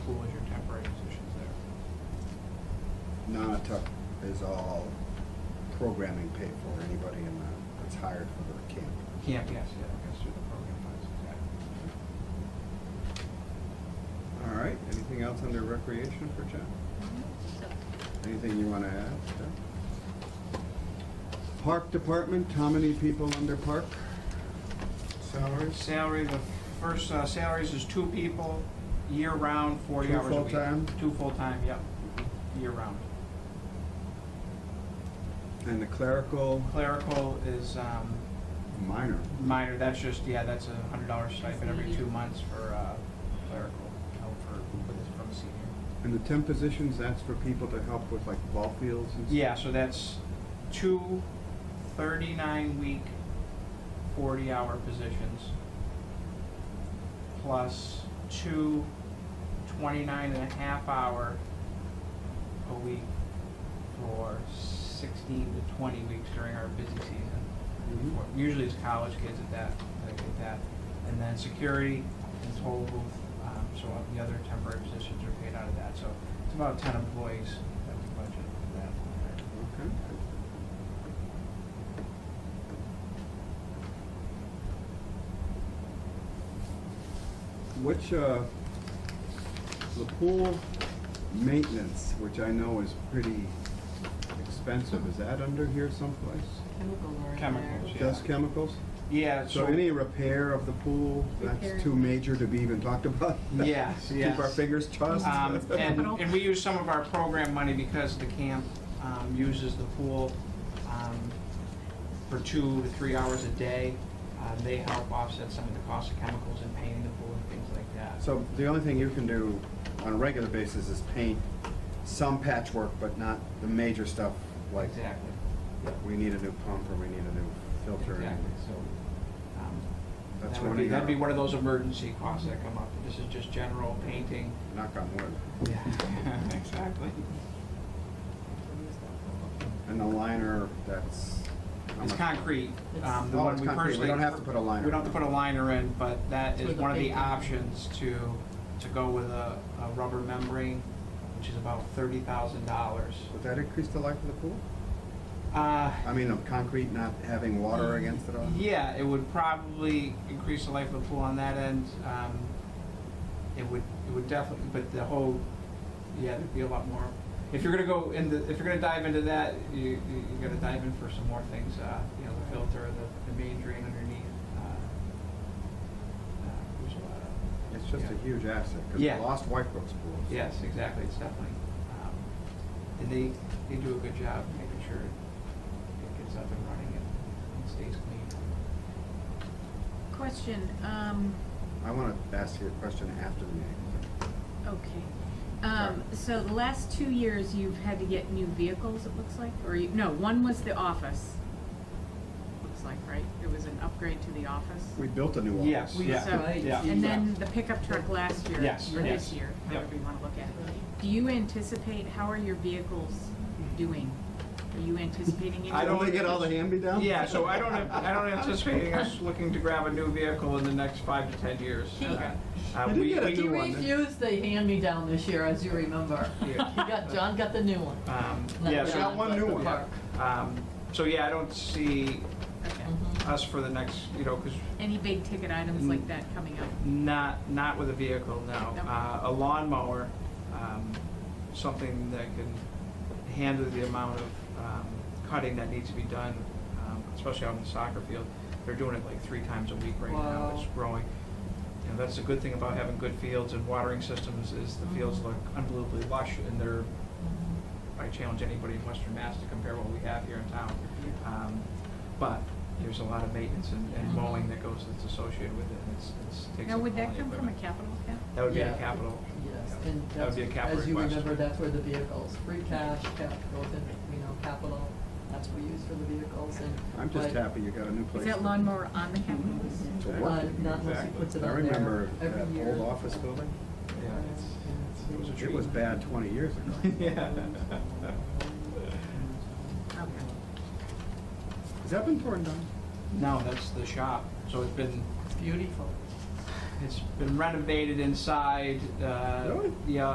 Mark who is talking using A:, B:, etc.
A: Nantucket is all programming paid for, anybody in the, that's hired for the camp.
B: Camp, yes, yeah, I guess through the program funds, exactly.
A: All right, anything else under recreation for John? Anything you wanna add, John? Park department, how many people under park? Salaries?
B: Salary, the first uh, salaries is two people, year-round, forty
A: Two
B: hours a week.
A: full-time?
B: Two full-time, yep, year-round.
A: And the clerical,
B: Clerical is um,
A: minor.
B: minor, that's just, yeah, that's a hundred dollar stipend every two months for uh, clerical, help for, for this- from a senior.
A: And the temp positions, that's for people to help with like ball fields and stuff?
B: Yeah, so that's two thirty-nine-week, forty-hour positions, plus two twenty-nine and a half hour a week for sixteen to twenty weeks during our busy season.
A: Mhm.
B: Or Usually it's college kids at that, that get that. And then security and toll booth, um, so all the other temporary positions are paid out of that. So it's about ten employees that we budget for that.
A: Okay. Which, uh, the pool maintenance, which I know is pretty expensive, is that under here someplace?
C: Chemical or.
B: Chemicals, yeah.
A: Just chemicals?
B: Yeah, so.
A: So any repair of the pool,
C: Repair.
A: that's too major to be even talked about?
B: Yes,
A: Keep our
B: yes.
A: fingers crossed?
B: Um, and,
C: Capital.
B: and we use some of our program money because the camp, um, uses the pool, um, for two to three hours a day. Uh, they help offset some of the cost of chemicals and painting the pool and things like that.
A: So the only thing you can do on a regular basis is paint some patchwork, but not the major stuff like
B: Exactly,
A: we need a new pump or we need a new filter. and-
B: exactly, so, um,
A: That's
B: that would
A: running
B: be, that'd be
A: out.
B: one of those emergency costs that come up. This is just general painting.
A: Knock on wood.
B: Yeah. Exactly.
A: And the liner, that's. how
B: It's
A: much-
B: concrete. um, the
A: Oh,
B: one
A: it's
B: we
A: concrete. We
B: personally-
A: don't have to put a liner.
B: We don't have to put a liner in, but that
C: For
B: is
C: the
B: one of the
C: painting.
B: options to, to go with a, a rubber membrane, which is about thirty thousand dollars.
A: Would that increase the life of the pool?
B: Uh,
A: I mean, of concrete not having water against it all?
B: yeah, it would probably increase the life of the pool on that end. Um, it would, it would definitely, but the whole, yeah, there'd be a lot more. If you're gonna go in the, if you're gonna dive into that, you, you- you're gonna dive in for some more things, uh, you know, the filter, the, the main drain underneath. uh, uh, There's a lot of,
A: It's just a
B: Yeah.
A: huge asset, because
B: Yeah.
A: we lost White Brook's pool. so-
B: yes, exactly, it's definitely, um, and they, they do a good job making sure it gets up and running and stays clean.
C: Question, um,
A: I want to ask you a question after the meeting.
C: okay. Um, so the last two years, you've had to get new vehicles, it looks like, or you, no, one was the office. Looks like, right? It was an upgrade to the office.
A: We built a new office.
B: Yes.
C: We-
B: Yeah,
C: so-
B: yeah,
C: And then the pickup truck last year,
B: Yes,
C: or this
B: yes,
C: year,
B: yep.
C: however you wanna look at it. Do you anticipate, how are your vehicles doing? Are you anticipating any?
B: I
A: Don't
B: don't-
A: they get all the hand-me-downs?
B: Yeah, so I don't, I don't anticipate us looking to grab a new vehicle in the next five to 10 years.
C: Okay.
B: Uh,
A: You did
B: we-
A: get a
B: we-
A: new
D: He
A: one, didn't you?
D: refused the hand-me-down this year, as you remember. He
B: Yeah.
D: got, John got the new one.
B: um,
D: Not
B: Yeah,
D: John,
B: so,
A: got one
D: but
A: new
D: the
A: one.
D: park.
B: um, so yeah, I don't see
C: Okay.
D: Mhm.
B: us for the next, you know, because
C: Any big ticket items like that coming up?
B: Mm. not, not with a vehicle, no.
C: No.
B: Uh, A lawnmower, um, something that can handle the amount of um, cutting that needs to be done, um, especially out in the soccer field. They're doing it like three times a week right now.
D: Wow.
B: It's growing. You know, that's the good thing about having good fields and watering systems is the fields look unbelievably lush and they're, I challenge anybody in Western Mass to compare what we have here in town. Um, But there's a lot of maintenance and and mowing that goes, that's associated with it. and It's, it's takes.
C: Now,
B: up
C: would
B: all the
C: that come from a
B: equipment.
C: capital account?
B: That would be a
D: Yeah.
B: capital.
D: Yes,
B: yeah.
D: and
B: That would
D: that's,
B: be a capital
D: as you
B: request.
D: remember, that's where the vehicles, free cash, capital, you know, capital, that's what we use for the vehicles and.
A: I'm just
D: but-
A: happy you got a new place.
C: Is that lawnmower on the capital list?
A: to
D: Uh,
A: work.
D: not unless he puts it
A: I
D: on there
A: remember
D: every
A: that
D: year.
A: old office building.
B: Yeah, it's, it's- it was a
A: It was
B: treat.
A: bad 20 years ago.
B: Yeah.
C: Okay.
A: Has that been torn down?
B: No, that's the shop. So it's been,
D: It's beautiful.
B: it's been renovated inside. uh,
A: Really?
B: Yeah,